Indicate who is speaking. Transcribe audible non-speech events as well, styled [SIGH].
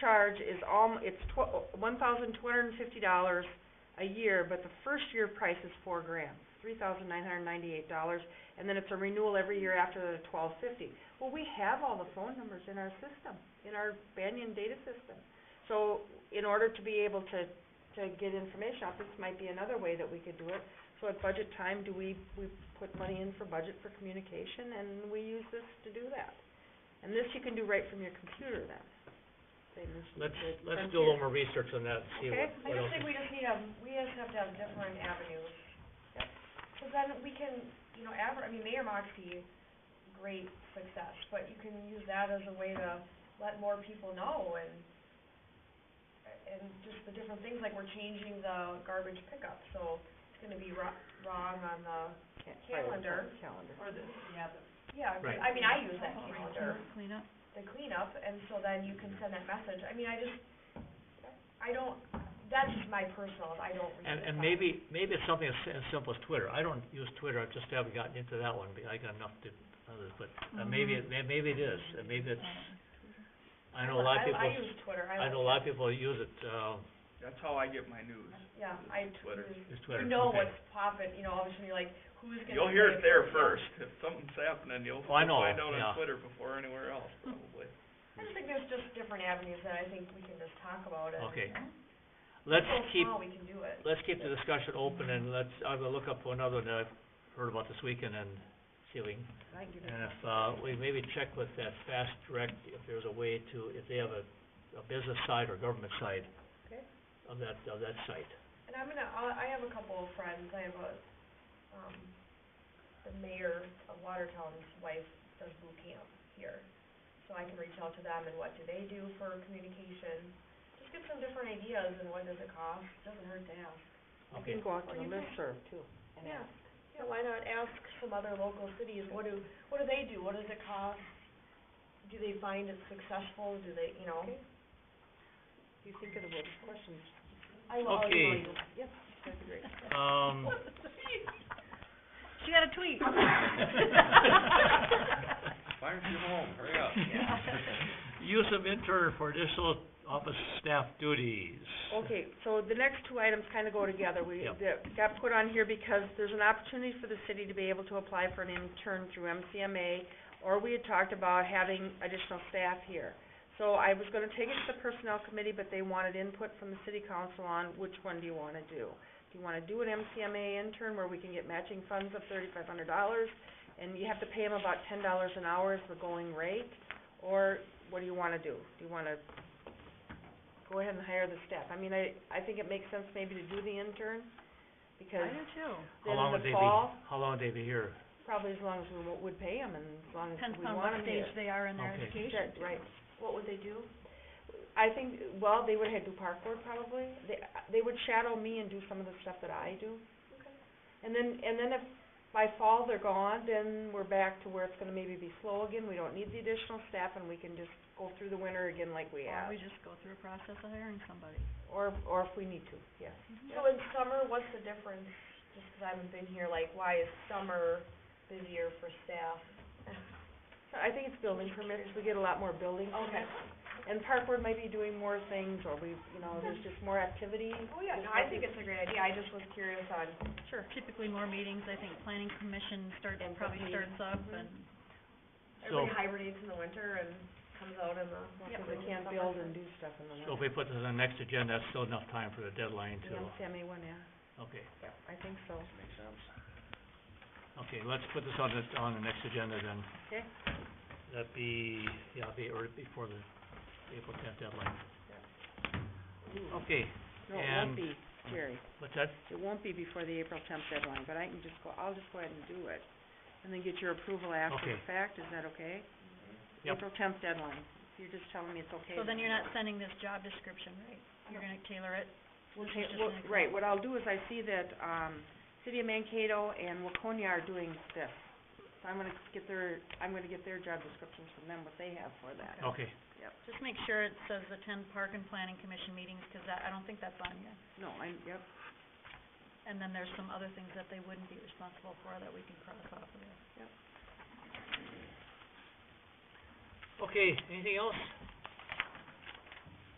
Speaker 1: charge is all, it's tw- one thousand two hundred and fifty dollars a year, but the first year price is four grand, three thousand nine hundred and ninety-eight dollars, and then it's a renewal every year after the twelve fifty. Well, we have all the phone numbers in our system, in our Banyan data system. So in order to be able to, to get information out, this might be another way that we could do it. So at budget time, do we, we put money in for budget for communication, and we use this to do that. And this you can do right from your computer then, same as you
Speaker 2: Let's,
Speaker 1: did
Speaker 2: let's
Speaker 1: from
Speaker 2: do a little
Speaker 1: here.
Speaker 2: more research on that, see
Speaker 1: Okay.
Speaker 2: what,
Speaker 3: I
Speaker 2: what
Speaker 3: just
Speaker 2: else.
Speaker 3: think we just need a, we just have to have different avenues. Cause then we can, you know, adver, I mean, Mayor Moxie, great success, but you can use that as a way to let more people know and, and just the different things, like we're changing the garbage pickup, so it's gonna be ro- wrong on the,
Speaker 1: Can't- right,
Speaker 3: calendar.
Speaker 1: Calendar.
Speaker 4: Or the, oh, yeah, the.
Speaker 3: yeah, 'cause
Speaker 2: Right.
Speaker 3: I mean, I use that calendar.
Speaker 4: Cleanup.
Speaker 3: the cleanup, and so then you can send that message. I mean, I just, I don't, that's just my personal, I don't read
Speaker 2: And,
Speaker 3: the
Speaker 2: and
Speaker 3: signs.
Speaker 2: maybe, maybe it's something as, as simple as Twitter. I don't use Twitter, I just haven't gotten into that one, because I got enough to, others, but,
Speaker 3: Mm-hmm.
Speaker 2: uh, maybe, it- may- maybe it is, and maybe it's, I know a lot of people,
Speaker 3: I use Twitter,
Speaker 2: I
Speaker 3: I
Speaker 2: know a lot of
Speaker 3: like,
Speaker 2: people use it, uh,
Speaker 5: That's how I get my news.
Speaker 3: yeah, I
Speaker 5: Twitter.
Speaker 3: tweet.
Speaker 2: is Twitter,
Speaker 3: You know
Speaker 2: okay.
Speaker 3: what's popping, you know, all of a sudden you're like, who's gonna say?
Speaker 5: You'll hear it there
Speaker 3: yeah.
Speaker 5: first. If something's happening, you'll
Speaker 2: Oh, I
Speaker 5: you'll
Speaker 2: know,
Speaker 5: find out
Speaker 2: yeah.
Speaker 5: on Twitter before anywhere else, probably.
Speaker 3: I just think there's just different avenues that I think we can just talk about and
Speaker 2: Okay. Let's
Speaker 3: so
Speaker 2: keep,
Speaker 3: small, we can do it.
Speaker 2: let's keep the discussion open, and let's, I'm gonna look up another one that I've heard about this weekend, and see if we can
Speaker 1: I give it
Speaker 2: And if, uh, we maybe check with that Fast Direct, if there's a way to, if they have a, a business side or government side
Speaker 3: Okay.
Speaker 2: of that, of that site.
Speaker 3: And I'm gonna, I'll- I have a couple of friends, I have a, um, the mayor of Watertown's wife does boot camp here. So I can reach out to them and what do they do for communication, just get some different ideas and what does it cost, doesn't hurt to ask.
Speaker 1: You
Speaker 2: Okay,
Speaker 1: can go out to
Speaker 3: Or
Speaker 1: the
Speaker 3: you can-
Speaker 1: listserv too, and
Speaker 3: Yeah.
Speaker 1: ask.
Speaker 3: Yeah, why not ask some other local cities, what do, what do they do, what does it cost? Do they find it successful, do they, you know?
Speaker 1: Okay. If you think of the word questions,
Speaker 3: I will, I'll
Speaker 2: Okay.
Speaker 3: email you.
Speaker 1: yep, that'd be great. [LAUGHS]
Speaker 2: um. [LAUGHS]
Speaker 4: She got a
Speaker 3: [LAUGHS]
Speaker 4: tweet.
Speaker 5: Fire you home, hurry
Speaker 2: [LAUGHS]
Speaker 5: up.
Speaker 2: Use of intern for additional office staff duties.
Speaker 1: Okay, so the next two items kind of go together. We,
Speaker 2: Yep.
Speaker 1: that got put on here because there's an opportunity for the city to be able to apply for an intern through MCMA, or we had talked about having additional staff here. So I was gonna take it to the personnel committee, but they wanted input from the city council on which one do you wanna do? Do you wanna do an MCMA intern where we can get matching funds of thirty-five hundred dollars, and you have to pay them about ten dollars an hour is the going rate? Or what do you wanna do? Do you wanna go ahead and hire the staff. I mean, I, I think it makes sense maybe to do the intern, because
Speaker 4: too.
Speaker 2: How
Speaker 1: then in
Speaker 2: long would
Speaker 1: the
Speaker 2: they be,
Speaker 1: fall,
Speaker 2: how long would they be here?
Speaker 1: probably as long as we wo- would pay them and as long as
Speaker 4: Depends
Speaker 1: we
Speaker 4: on what
Speaker 1: want them
Speaker 4: stage
Speaker 1: here.
Speaker 4: they are in their
Speaker 2: Okay.
Speaker 4: education.
Speaker 1: That- Right.
Speaker 3: What would they do?
Speaker 1: I think, well, they would have to do park board probably. They, they would shadow me and do some of the stuff that I do.
Speaker 3: Okay.
Speaker 1: And then, and then if by fall they're gone, then we're back to where it's gonna maybe be slow again. We don't need the additional staff and we can just go through the winter again like we
Speaker 4: Or
Speaker 1: have.
Speaker 4: we just go through a process of hiring somebody.
Speaker 1: Or, or if we need to, yes.
Speaker 3: Mm-hmm. So in summer, what's the difference, just 'cause I haven't been here, like, why is summer busier for staff?
Speaker 1: I think it's building permits. We get a lot more building permits. And park board might be doing more things, or we, you know, there's just more activity.
Speaker 3: Oh, yeah, no, I think it's a great idea, I just was curious on,
Speaker 1: Sure.
Speaker 4: Typically more meetings, I think planning commission starts,
Speaker 1: And
Speaker 4: probably
Speaker 1: public
Speaker 4: starts up
Speaker 1: Mhm.
Speaker 4: and,
Speaker 2: So,
Speaker 3: everybody hibernates in the winter and comes out in the.
Speaker 1: Because they can't build and do stuff in the
Speaker 2: so
Speaker 1: winter.
Speaker 2: if we put this on the next agenda, that's still enough time for the deadline
Speaker 1: The
Speaker 2: to,
Speaker 1: MCMA one, yeah,
Speaker 2: okay.
Speaker 1: I think so.
Speaker 5: Makes sense.
Speaker 2: Okay, let's put this on the, on the next agenda then.
Speaker 1: Okay.
Speaker 2: That be, yeah, be, or before the April tenth deadline.
Speaker 1: Ooh.
Speaker 2: Okay,
Speaker 1: No, it won't
Speaker 2: and-
Speaker 1: be, Jerry.
Speaker 2: what's that?
Speaker 1: It won't be before the April tenth deadline, but I can just go, I'll just go ahead and do it. And then get your approval after the
Speaker 2: Okay.
Speaker 1: fact, is that okay?
Speaker 5: Mm-hmm.
Speaker 2: Yep.
Speaker 1: April tenth deadline. If You're just telling me it's okay.
Speaker 4: so then you're not sending this job description, right? You're gonna tailor it.
Speaker 1: We'll
Speaker 4: This
Speaker 1: ta-
Speaker 4: is just
Speaker 1: well,
Speaker 4: an
Speaker 1: right, what I'll do is I see that, um, City of Mankato and Waconia are doing this. So I'm gonna get their, I'm gonna get their job descriptions from them, what they have for that.
Speaker 2: Okay,
Speaker 4: Just make sure it says attend park and planning commission meetings, 'cause that, I don't think that's on here.
Speaker 1: No, I, yep,
Speaker 4: And then there's some other things that they wouldn't be responsible for that we can cross off of there.
Speaker 2: okay, anything else?